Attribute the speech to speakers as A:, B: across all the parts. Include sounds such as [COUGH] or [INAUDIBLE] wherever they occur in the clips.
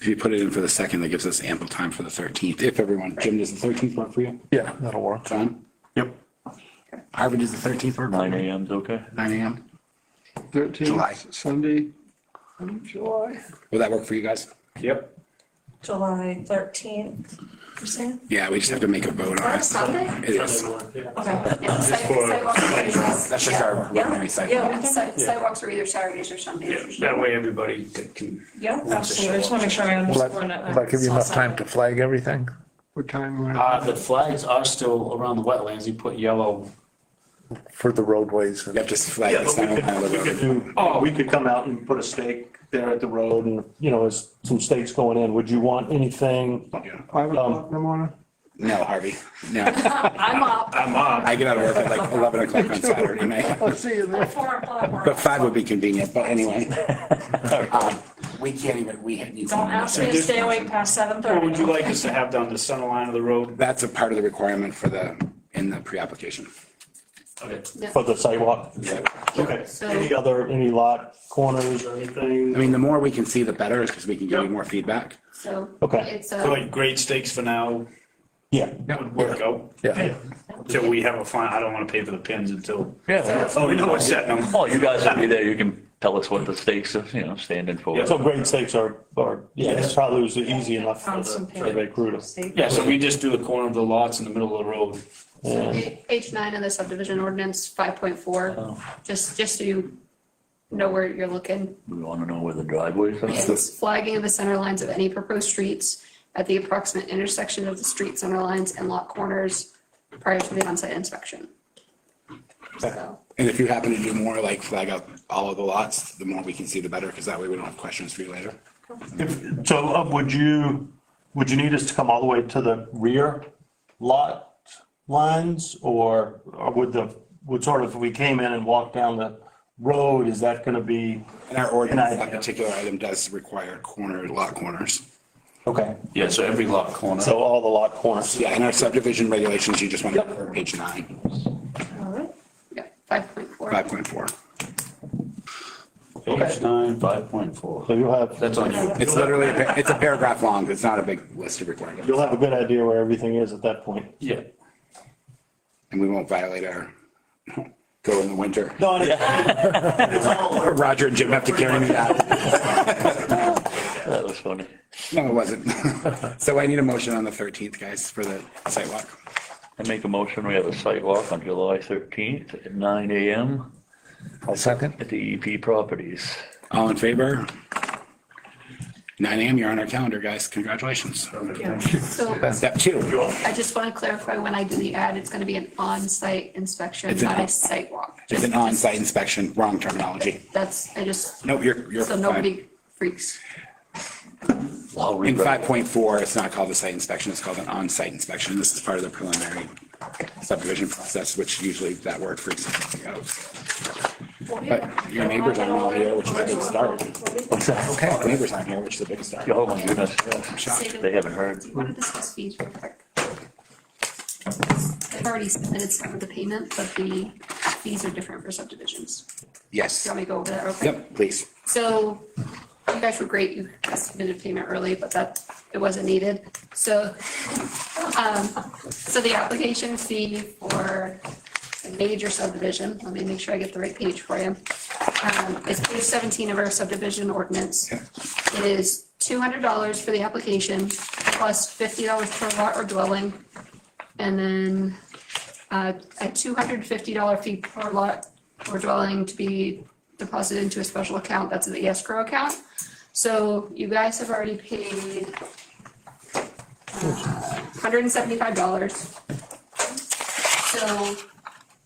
A: If you put it in for the second, that gives us ample time for the 13th. If everyone, Jim, does the 13th work for you?
B: Yeah, that'll work.
A: John?
C: Yep.
A: Harvard does the 13th work?
C: Nine AM's okay?
A: 9 AM.
D: 13th, Sunday, um, July.
A: Will that work for you guys?
C: Yep.
E: July thirteenth, you're saying?
A: Yeah, we just have to make a vote on
E: Or
A: it.
E: Sunday?
A: It is.
E: Okay. Yeah, site- sidewalk meetings.
A: That's just our
E: Yeah,
A: preliminary site.
E: yeah, si-
F: Sidewalks are either Saturdays or Sundays.
C: That way everybody that can.
E: yeah, absolutely. I just want to make sure I
B: Will that-
E: understand.
B: will that give you enough time to flag everything?
D: What time? we're
G: Uh,
D: at?
G: the flags are still around the wetlands. You put yellow.
B: For the roadways and.
A: Yep, just flag this down on the road.
C: do.
H: Oh, we could come out and put a stake there at the road and, you know, there's some stakes going in. Would you want anything?
D: Five o'clock in the morning?
A: No, Harvey, no.
E: I'm up.
C: I'm on.
A: I get out of work at like 11 o'clock on Saturday night.
D: I'll see you there.
E: Four o'clock. we're
A: But
E: up.
A: 5 would be convenient, but anyway. Um, We can't even, we need.
E: Don't ask me to stay awake past seven
C: Or
E: thirty.
C: would you like us to have down the center line of the road?
A: That's a part of the requirement for the, in the pre-application.
C: Okay.
H: For the sidewalk?
C: Okay.
H: Any other, any lot corners or anything?
A: I mean, the more we can see, the better, because we can give you
C: Yep.
A: more feedback.
F: So
H: Okay.
F: it's uh, a.
C: So like grade stakes for now
H: Yeah.
C: would work out.
B: Yeah.
C: Until we have a fine, I don't want to pay for the pins until,
B: Yeah.
C: oh, we know what's setting them.
I: Well, you guys will be there. You can tell us what the stakes are, you know, standing for.
C: Yeah.
H: So grade stakes are, are, yeah, this probably was easy enough for
E: Found
H: the
E: some
H: survey crew to.
C: Yeah, so we just do the corner of the lots in the middle of the road.
F: So H nine of the subdivision ordinance, five point four, just, just so you know where you're looking.
I: We want to know where the driveways are.
F: It's flagging of the center lines of any proposed streets at the approximate intersection of the street center lines and lot corners prior to the onsite inspection. So,
A: And if you happen to do more, like flag out all of the lots, the more we can see, the better, because that way we don't have questions for you later.
H: If- So uh, would you, would you need us to come all the way to the rear lot lines? Or or would the, would sort of, if we came in and walked down the road, is that going to be?
A: And our ordinance,
H: And I-
A: that particular item does require corner, lot corners.
H: Okay,
C: Yeah, so every lot corner.
H: so all the lot corners.
A: Yeah, in our subdivision regulations, you just want to refer to page nine,
E: All right.
F: yeah, five point four.
A: five point four.
C: Page nine, five point four.
H: So you'll have,
C: That's on you.
A: It's literally, a pa- it's a paragraph long, it's not a big list of requirements,
H: you'll have a good idea where everything is at that point.
C: Yeah.
A: and we won't violate our, [LAUGHS] go in the winter.
H: No, I- it's
A: [LAUGHS]
H: all-
A: Roger and Jim have to carry me out.
H: [LAUGHS]
I: That was funny.
A: No, it wasn't. [LAUGHS] So I need a motion on the thirteenth, guys, for the sidewalk.
I: I make a motion. We have a site walk on July 13th at 9 AM
B: I'll second.
I: at the EP Properties.
A: All in favor? Nine AM, you're on our calendar, guys. Congratulations.
F: So
A: Step two.
F: I just want to clarify, when I do the ad, it's going to be an on-site inspection,
A: It's an
F: not
A: on-
F: a site walk.
A: It's an on-site inspection, wrong terminology.
F: That's, I just,
A: Nope, you're, you're
F: so
A: fine.
F: nobody freaks.
I: I'll
A: In
I: rewrite
A: five point four, it's not called a site inspection, it's called an on-site inspection. This is part of the preliminary subdivision process, which usually that word freaks me out. But your neighbors aren't all here, which is a big start. Okay. Neighbors aren't here, which is a big start.
I: it. Oh, my goodness. yes. They haven't heard.
F: What are the sales fees real quick? I've already submitted some of the payment, but the fees are different for subdivisions.
A: Yes.
F: Do you want me to go over that real quick?
A: Yep, please.
F: So you guys were great. You submitted payment early, but that, it wasn't needed. So, [LAUGHS] um, so the application fee for a major subdivision, let me make sure I get the right page for you. Um, it's page seventeen of our subdivision ordinance.
A: Yeah.
F: It is two hundred dollars for the application plus fifty dollars per lot or dwelling. And then uh, a two hundred and fifty dollar fee per lot or dwelling to be deposited into a special account, that's the escrow account. So you guys have already paid uh, hundred and seventy-five dollars. So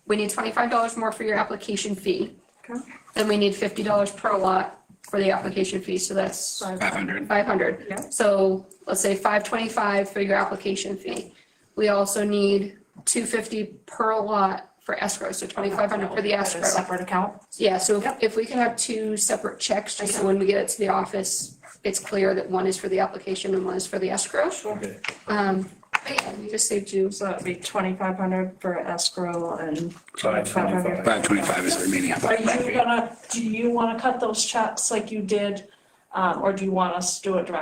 F: we need twenty-five dollars more for your application fee.
E: Okay.
F: Then we need fifty dollars per lot for the application fee, so that's
A: Five hundred.
F: five hundred.
E: Yeah.
F: So let's say five twenty-five for your application fee. We also need two fifty per lot for escrow, so twenty-five hundred for the
E: At a
F: escrow.
E: Separate account.
F: Yeah, so if-
E: Yep.
F: if we can have two separate checks, just so when we get it to the office, it's clear that one is for the application and one is for the escrow.
C: Okay.
F: Um, but yeah, we just saved you.
E: So that'd be twenty-five hundred for escrow and
C: Five
E: five hundred.
C: twenty-five.
A: Five twenty-five is the remaining.
E: Are you gonna, do you wanna cut those checks like you did, um, or do you want us to do it directly